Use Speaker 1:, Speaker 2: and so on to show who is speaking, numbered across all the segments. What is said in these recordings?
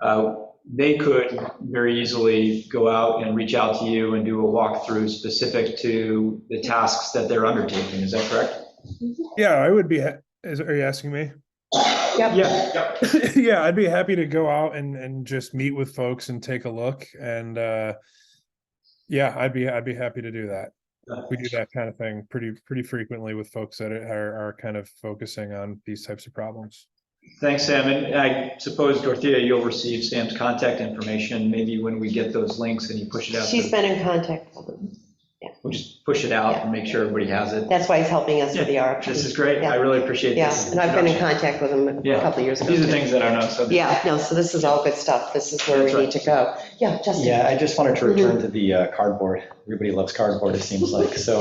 Speaker 1: uh, they could very easily go out and reach out to you and do a walkthrough specific to the tasks that they're undertaking, is that correct?
Speaker 2: Yeah, I would be, ha- is, are you asking me?
Speaker 3: Yep.
Speaker 1: Yeah,
Speaker 2: Yeah, I'd be happy to go out and, and just meet with folks and take a look and, uh, yeah, I'd be, I'd be happy to do that. We do that kind of thing pretty, pretty frequently with folks that are, are kind of focusing on these types of problems.
Speaker 1: Thanks, Sam. And I suppose, Dorothea, you'll receive Sam's contact information, maybe when we get those links and you push it out.
Speaker 3: She's been in contact with him.
Speaker 1: We'll just push it out and make sure everybody has it.
Speaker 3: That's why he's helping us with the
Speaker 1: This is
Speaker 3: RFP.
Speaker 1: great. I really appreciate
Speaker 3: Yeah,
Speaker 1: this.
Speaker 3: and I've been in
Speaker 1: introduction.
Speaker 3: contact with him a
Speaker 1: Yeah.
Speaker 3: couple of years ago.
Speaker 1: These are
Speaker 3: too.
Speaker 1: things that are not subject.
Speaker 3: Yeah, no, so this is all good stuff. This is where we
Speaker 1: That's right.
Speaker 3: need to go. Yeah, Justin.
Speaker 4: Yeah, I just wanted to return to the uh, cardboard. Everybody loves cardboard, it seems like. So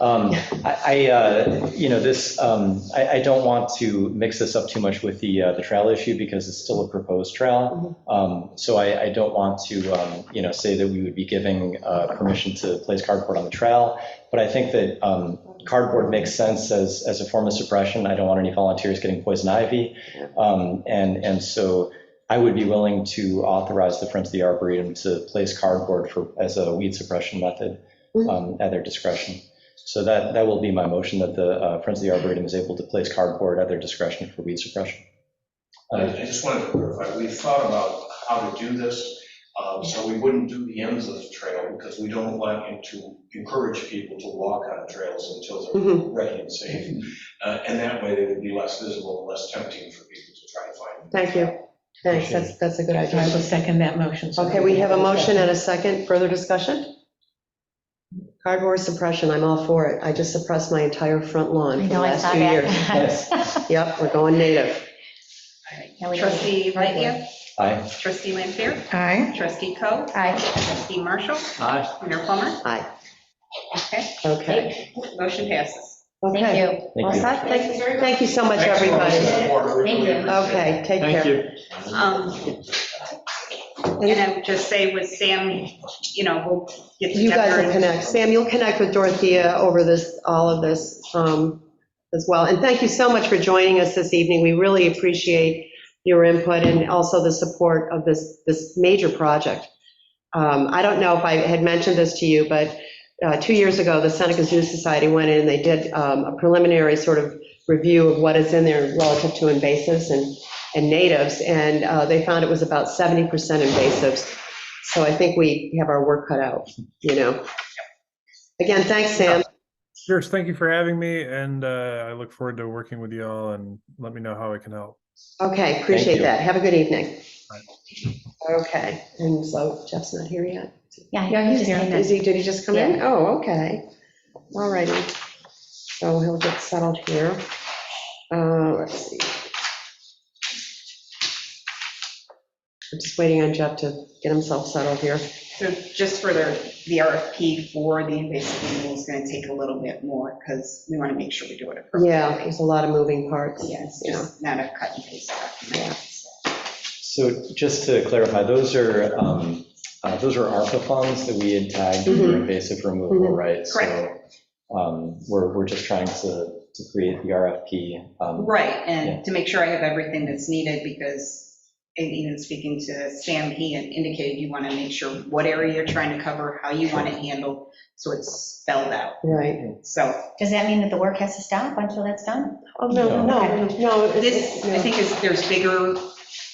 Speaker 4: um, I, I, uh, you know, this, um, I, I don't want to mix this up too much with the, uh, the trail issue because it's still a proposed trail. Um, So I, I don't want to, um, you know, say that we would be giving uh, permission to place cardboard on the trail. But I think that um, cardboard makes sense as, as a form of suppression. I don't want any volunteers getting poison ivy. Um, And, and so I would be willing to authorize the Friends of the Arboretum to place cardboard for, as a weed suppression method um, at their discretion. So that, that will be my motion, that the uh, Friends of the Arboretum is able to place cardboard at their discretion for weed suppression.
Speaker 5: I I just wanted to clarify, we thought about how to do this, um, so we wouldn't do the ends of the trail, because we don't want you to encourage people to walk on trails until they're
Speaker 3: Mhm.
Speaker 5: ready and safe. Uh, And that way, they would be less visible, and less tempting for people to try to find.
Speaker 3: Thank you. Thanks, that's, that's a good
Speaker 6: So I will
Speaker 3: idea.
Speaker 6: second that motion. so
Speaker 3: Okay, we have a motion and a second. Further discussion? Cardboard suppression, I'm all for it. I just suppressed my entire front lawn
Speaker 7: I
Speaker 3: for the
Speaker 7: know, I
Speaker 3: last
Speaker 7: saw
Speaker 3: two years.
Speaker 7: that.
Speaker 3: Yep, we're going native.
Speaker 7: Now we don't-
Speaker 8: Trustee Lightyear,
Speaker 4: Aye.
Speaker 8: trustee Lampier,
Speaker 6: Aye.
Speaker 8: trustee Coe,
Speaker 7: Aye,
Speaker 8: trustee Marshall,
Speaker 1: Aye.
Speaker 8: Mayor Plummer.
Speaker 3: Aye.
Speaker 8: Okay,
Speaker 3: Okay.
Speaker 8: motion passes.
Speaker 7: thank
Speaker 3: Okay.
Speaker 7: you.
Speaker 4: Thank
Speaker 3: All
Speaker 4: you.
Speaker 3: set? Thank thank you so much,
Speaker 5: Thanks for all
Speaker 3: everybody.
Speaker 5: the support. We
Speaker 7: Thank
Speaker 5: really
Speaker 7: you.
Speaker 5: appreciate it.
Speaker 3: Okay, take
Speaker 1: Thank
Speaker 3: care.
Speaker 1: you.
Speaker 8: Um, And I would just say with Sam, you know, we'll get together.
Speaker 3: You guys will
Speaker 8: and-
Speaker 3: connect. Sam, you'll connect with Dorothea over this, all of this um, as well. And thank you so much for joining us this evening. We really appreciate your input and also the support of this, this major project. Um, I don't know if I had mentioned this to you, but uh, two years ago, the Seneca Zoo Society went in and they did um, a preliminary sort of review of what is in there relative to invasives and, and natives. And uh, they found it was about 70% invasives. So I think we have our work cut out you know. Again, thanks, Sam.
Speaker 2: Sure, thank you for having me and, uh, I look forward to working with you all and let me know how I can help.
Speaker 3: Okay, appreciate
Speaker 4: you.
Speaker 3: that. Have a good evening. Okay, and so Jeff's not here yet?
Speaker 7: Yeah, he just came in.
Speaker 3: Is he, did he just come in? Oh, okay. All righty. So he'll get settled here. Uh, Let's see. I'm just waiting on Jeff to get himself settled here.
Speaker 8: So just for the, the RFP for the invasive animal is going to take a little bit more because we want to make sure we do it
Speaker 3: Yeah,
Speaker 8: appropriately.
Speaker 3: there's a lot of moving parts.
Speaker 8: Yes, just not a cut and paste document.
Speaker 4: So just to clarify, those are, um, uh, those are ARPA funds that we had tagged for
Speaker 3: Mhm.
Speaker 4: invasive removal,
Speaker 3: Mhm.
Speaker 4: right? So um, we're, we're just trying to, to create the RFP. um,
Speaker 8: Right,
Speaker 4: Yeah.
Speaker 8: and to make sure I have everything that's needed, because and even speaking to Sam, he had indicated you want to make sure what area you're trying to cover, how you want to handle, so it's spelled out.
Speaker 3: Right.
Speaker 8: So
Speaker 7: Does that mean that the work has to stop until that's done?
Speaker 3: Oh, no, no, no. it's-
Speaker 8: this, I
Speaker 3: no.
Speaker 8: think is, there's bigger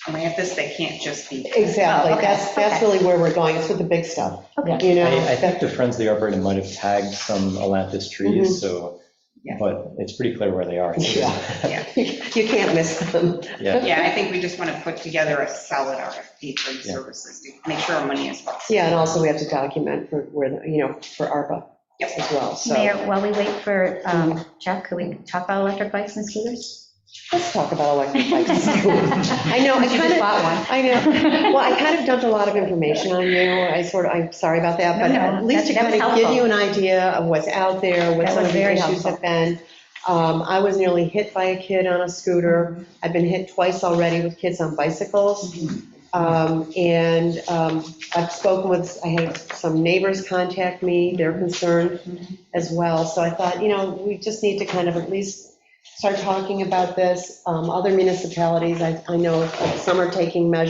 Speaker 8: grants that can't just be.
Speaker 3: Exactly,
Speaker 7: Oh, okay,
Speaker 3: that's, that's
Speaker 7: okay.
Speaker 3: really where we're going, it's with the big stuff,
Speaker 7: Okay.
Speaker 3: you
Speaker 4: I, I
Speaker 3: know?
Speaker 4: think the Friends of the Arboretum might have tagged some Atlantis trees, so,
Speaker 8: Yeah.
Speaker 4: but it's pretty clear where they are.
Speaker 3: Yeah.
Speaker 8: Yeah,
Speaker 3: You can't miss them.
Speaker 4: Yeah.
Speaker 8: yeah, I think we just want to put together a solid RFP for the
Speaker 4: Yeah.
Speaker 8: services, to make sure our money is well.
Speaker 3: Yeah, and also we have to document for, where, you know, for ARPA
Speaker 8: Yep.
Speaker 3: as well, so.
Speaker 7: Mayor, while we wait for um, Jeff, could we talk about electric bikes and scooters?
Speaker 3: Let's talk about electric bikes and scooters. I know, I
Speaker 7: You just
Speaker 3: kind
Speaker 7: bought
Speaker 3: of,
Speaker 7: one.
Speaker 3: I know, well, I kind of dumped a lot of information on you, I sort of, I'm sorry about that,
Speaker 7: No,
Speaker 3: but
Speaker 7: no,
Speaker 3: at least to
Speaker 7: that- that
Speaker 3: kind
Speaker 7: was
Speaker 3: of give you
Speaker 7: helpful.
Speaker 3: an idea of what's out there, what
Speaker 7: That
Speaker 3: some
Speaker 7: was
Speaker 3: of the
Speaker 7: very
Speaker 3: issues
Speaker 7: helpful.
Speaker 3: have been. Um, I was nearly hit by a kid on a
Speaker 7: Mm-hmm.
Speaker 3: scooter, I've been hit twice already with kids on bicycles.
Speaker 7: Mm-hmm.
Speaker 3: Um, And um, I've spoken with, I had some neighbors contact me, they're concerned
Speaker 7: Mm-hmm.
Speaker 3: as well. So I thought, you know, we just need to kind of at least start talking about this. Um, Other municipalities, I I know some are taking measures.